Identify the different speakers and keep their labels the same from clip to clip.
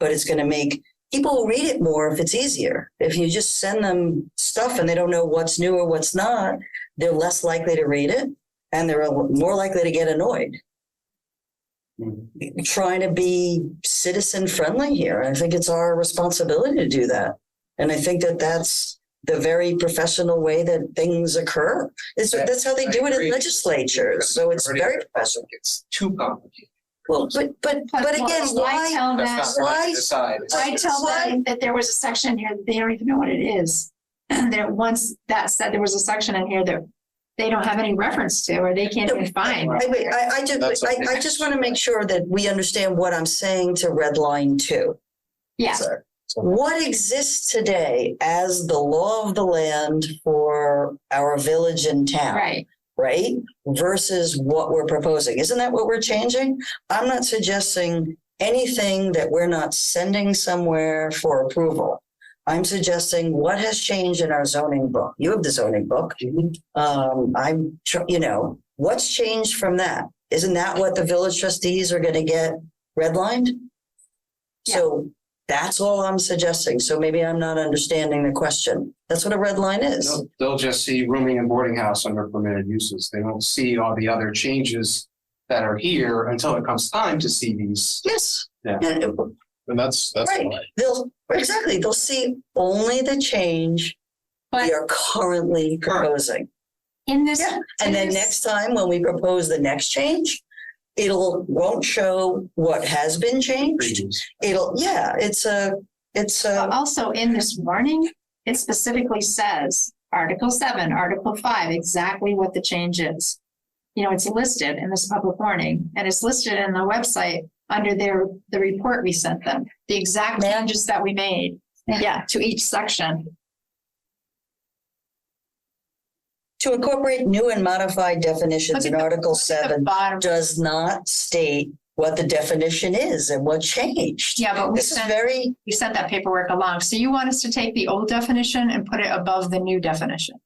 Speaker 1: but it's going to make people will read it more if it's easier. If you just send them stuff and they don't know what's new or what's not, they're less likely to read it and they're more likely to get annoyed. Trying to be citizen friendly here. I think it's our responsibility to do that. And I think that that's the very professional way that things occur. It's,
Speaker 2: Yeah,
Speaker 1: that's how they
Speaker 2: I
Speaker 1: do it in
Speaker 2: agree.
Speaker 1: legislatures. So it's
Speaker 2: Already-
Speaker 1: very professional.
Speaker 2: It's too complicated.
Speaker 1: Well, but, but, but again,
Speaker 3: I
Speaker 1: why?
Speaker 3: tell them,
Speaker 2: That's not
Speaker 1: why-
Speaker 2: right to decide.
Speaker 3: Oh, I tell them that there was a section here, that they don't even know what it is. And that once that said, there was a section in here that they don't have any reference to, or they can't even find.
Speaker 1: I, wait, I, I
Speaker 2: That's
Speaker 1: just, I,
Speaker 2: okay.
Speaker 1: I just want to make sure that we understand what I'm saying to red line two.
Speaker 3: Yeah,
Speaker 1: What exists today as the law of the land for our village and town?
Speaker 3: right.
Speaker 1: right? Versus what we're proposing. Isn't that what we're changing? I'm not suggesting anything that we're not sending somewhere for approval. I'm suggesting what has changed in our zoning book. You have the zoning book. Um, I'm, tr- you know, what's changed from that? Isn't that what the village trustees are gonna get redlined? So that's all I'm suggesting. So maybe I'm not understanding the question. That's what a red line is.
Speaker 2: They'll- They'll just see rooming and boarding house under permitted uses. They won't see all the other changes that are here until it comes time to see these.
Speaker 1: Yes.
Speaker 2: Yeah.
Speaker 1: And- uh,
Speaker 4: And that's, that's
Speaker 1: Right.
Speaker 4: why.
Speaker 1: They'll, exactly, they'll see only the change
Speaker 3: But
Speaker 1: we are currently proposing.
Speaker 3: in this.
Speaker 1: Yeah, And then
Speaker 3: in this-
Speaker 1: next time, when we propose the next change, it'll, won't show what has been changed.
Speaker 2: changes.
Speaker 1: It'll, yeah, it's a, it's
Speaker 3: But
Speaker 1: a,
Speaker 3: also in this warning, it specifically says Article seven, Article five, exactly what the change is. You know, it's listed in this public warning and it's listed in the website under their, the report we sent them, the exact changes that we made. Yeah, to each section.
Speaker 1: to incorporate new and modified definitions
Speaker 3: Look
Speaker 1: in
Speaker 3: at the-
Speaker 1: Article
Speaker 3: The
Speaker 1: seven
Speaker 3: bottom,
Speaker 1: does not state what the definition is and what changed.
Speaker 3: yeah, but we
Speaker 1: This is
Speaker 3: sent,
Speaker 1: very,
Speaker 3: we sent that paperwork along. So you want us to take the old definition and put it above the new definition?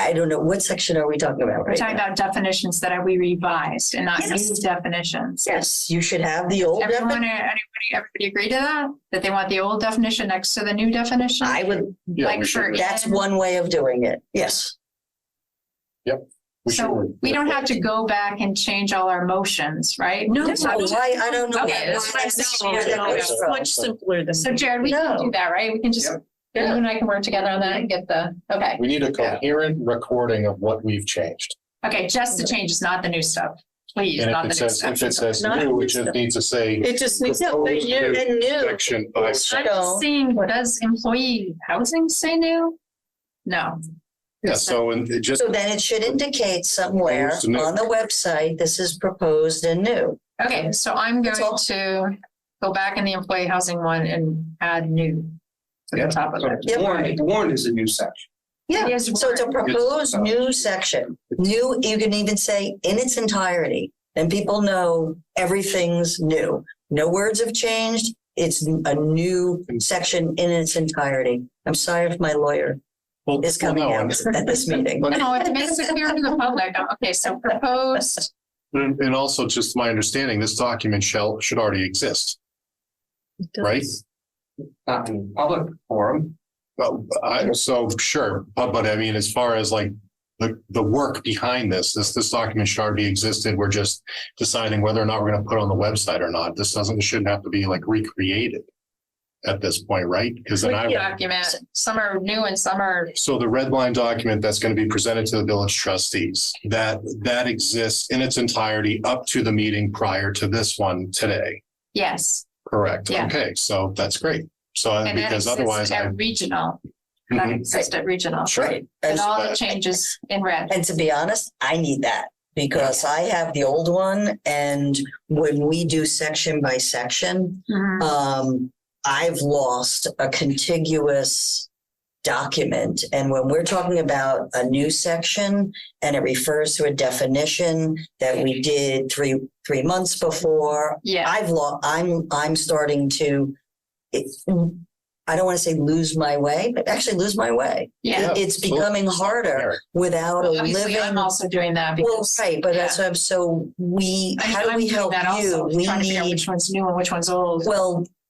Speaker 1: I don't know, what section are we talking about
Speaker 3: We're
Speaker 1: right
Speaker 3: talking
Speaker 1: now?
Speaker 3: about definitions that are we revised and not new
Speaker 1: Yes.
Speaker 3: definitions.
Speaker 1: Yes, you should have the old definition.
Speaker 3: Everyone, anybody, everybody agree to that? That they want the old definition next to the new definition?
Speaker 1: I would,
Speaker 4: Yeah,
Speaker 3: Like
Speaker 4: we should-
Speaker 3: for-
Speaker 1: that's one way of doing it. Yes.
Speaker 4: we
Speaker 3: So
Speaker 4: should-
Speaker 3: we don't have to go back and change all our motions, right?
Speaker 5: No.
Speaker 1: No, I, I don't know.
Speaker 5: Okay, that's what I'm saying.
Speaker 1: Where that comes
Speaker 5: It's
Speaker 1: from.
Speaker 5: much simpler than.
Speaker 3: So Jared, we can
Speaker 1: No.
Speaker 3: do that, right? We can just, you and I can work together on that and get the, okay.
Speaker 4: We need a coherent recording of what we've changed.
Speaker 3: Okay, just the changes, not the new stuff. Please,
Speaker 4: And if
Speaker 3: not
Speaker 4: it
Speaker 3: the new
Speaker 4: says,
Speaker 3: stuff.
Speaker 4: if it says
Speaker 5: Not-
Speaker 4: new, it just needs to say
Speaker 5: It just needs to be
Speaker 4: Proposed
Speaker 5: you.
Speaker 1: And new.
Speaker 4: section by
Speaker 1: I
Speaker 3: I'm
Speaker 4: section.
Speaker 1: don't-
Speaker 3: just saying, does employee housing say new? No.
Speaker 4: Yeah, so and it just,
Speaker 1: So then it should indicate somewhere
Speaker 4: Proposed and new.
Speaker 1: on the website, this is proposed and new.
Speaker 3: Okay, so I'm
Speaker 1: That's
Speaker 3: going
Speaker 1: all.
Speaker 3: to go back in the employee housing one and add new to
Speaker 2: Yeah.
Speaker 3: the top of
Speaker 2: So
Speaker 3: it.
Speaker 1: Yep.
Speaker 2: Warned, warned is a new section.
Speaker 1: Yeah,
Speaker 3: Yes,
Speaker 1: so it's a
Speaker 3: warrant.
Speaker 1: proposed new
Speaker 4: uh,
Speaker 1: section, new, you can even say in its entirety. And people know everything's new. No words have changed. It's a new section in its entirety. I'm sorry if my lawyer
Speaker 4: well,
Speaker 1: is coming
Speaker 4: well, no,
Speaker 1: out at this meeting.
Speaker 3: No, it makes it clear to the public. Okay, so proposed,
Speaker 4: And and also just my understanding, this document shall, should already exist, right?
Speaker 2: Not in public forum.
Speaker 4: Well, I, so sure, but, but I mean, as far as like the, the work behind this, this, this document should already existed. We're just deciding whether or not we're going to put it on the website or not. This doesn't, shouldn't have to be like recreated at this point, right? Because then I,
Speaker 3: document, some are new and some are,
Speaker 4: so the red line document that's going to be presented to the village trustees, that, that exists in its entirety up to the meeting prior to this one today.
Speaker 3: yes.
Speaker 4: Correct.
Speaker 3: Yeah.
Speaker 4: Okay, so that's great. So I-
Speaker 3: And that
Speaker 4: Uh, because
Speaker 3: exists
Speaker 4: otherwise I.
Speaker 3: at regional, that
Speaker 4: Mhm.
Speaker 3: exists at regional.
Speaker 4: Sure.
Speaker 3: And all the
Speaker 4: Right.
Speaker 3: changes in red.
Speaker 1: And to be honest, I need that because I have the old one and when we do section by section,
Speaker 3: Mm-hmm.
Speaker 1: um, I've lost a contiguous document. And when we're talking about a new section and it refers to a definition that we did three, three months before,
Speaker 3: Yeah,
Speaker 1: I've lost, I'm, I'm starting to, it, I don't want to say lose my way, but actually lose my way.
Speaker 3: Yeah.
Speaker 1: It- It's
Speaker 4: absolutely.
Speaker 1: becoming harder
Speaker 4: Eric,
Speaker 1: without a
Speaker 3: Obviously, I'm
Speaker 1: living.
Speaker 3: also doing that
Speaker 1: Well,
Speaker 3: because.
Speaker 1: right, but
Speaker 3: yeah.
Speaker 1: that's what I'm, so we,
Speaker 3: I mean,
Speaker 1: how do
Speaker 3: I'm
Speaker 1: we
Speaker 3: doing
Speaker 1: help
Speaker 3: that
Speaker 1: you?
Speaker 3: also,
Speaker 1: We
Speaker 3: Trying to figure out
Speaker 1: need,
Speaker 3: which one's new and which one's old.
Speaker 1: well,